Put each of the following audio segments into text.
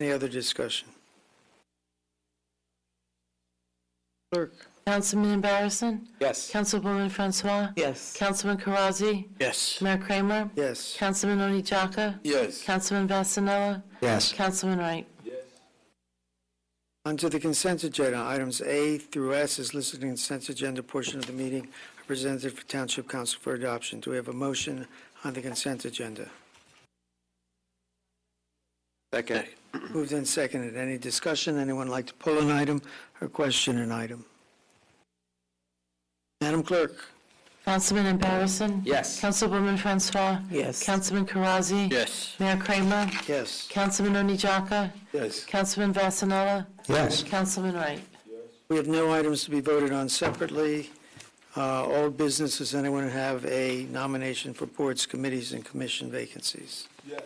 Any other discussion? Clerk? Councilman Barrison? Yes. Councilwoman Francois? Yes. Councilman Karazi? Yes. Mayor Kramer? Yes. Councilman Oni Jaka? Yes. Councilman Vasanella? Yes. Councilman Wright? Onto the consent agenda, items A through S is listed in the consent agenda portion of the meeting are presented for Township Council for adoption. Do we have a motion on the consent agenda? Second. Moved and seconded. Any discussion? Anyone like to pull an item or question an item? Madam Clerk? Councilman Barrison? Yes. Councilwoman Francois? Yes. Councilman Karazi? Yes. Mayor Kramer? Yes. Councilman Oni Jaka? Yes. Councilman Vasanella? Yes. Councilman Wright? We have no items to be voted on separately. Uh, All business, does anyone have a nomination for boards, committees, and commission vacancies? Yes.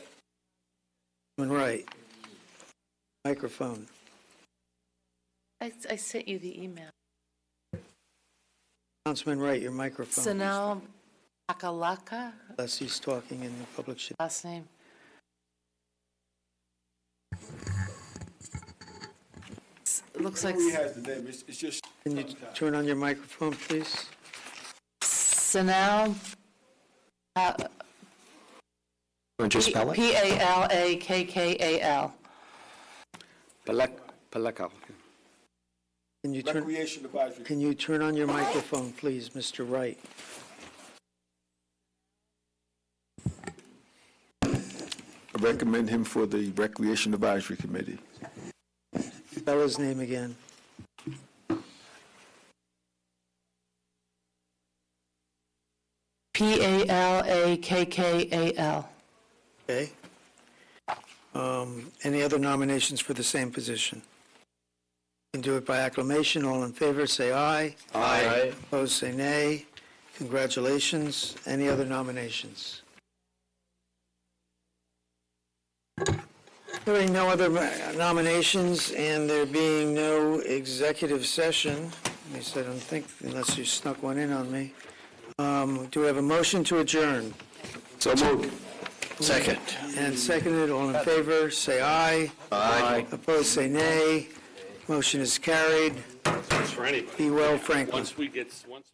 Councilman Wright. Microphone. I, I sent you the email. Councilman Wright, your microphone. Sanal Akalaka, Unless he's talking in the public. should- last name. S- Looks like Who has the name? It's, it's just Can you turn on your microphone, please? Sanal. uh, Want you to spell P A L A K K A L. Palakal. Can you turn, Recreation Advisory. can you turn on your microphone, please, Mr. Wright? I Recommend him for the Recreation Advisory Committee. Spell his name again. P A L A K K A L. Okay. Um, Any other nominations for the same position? Can do it by acclamation. All in favor, say aye. Aye. Opposed, say nay. Congratulations. Any other nominations? Hearing no other nominations and there being no executive session, at least I don't think, unless you snuck one in on me, um, do we have a motion to adjourn? So moved. Second. And seconded, all in favor, say aye. Aye. Opposed, say nay. Motion is carried. for anybody. Be well, Franklin. Once we get, once.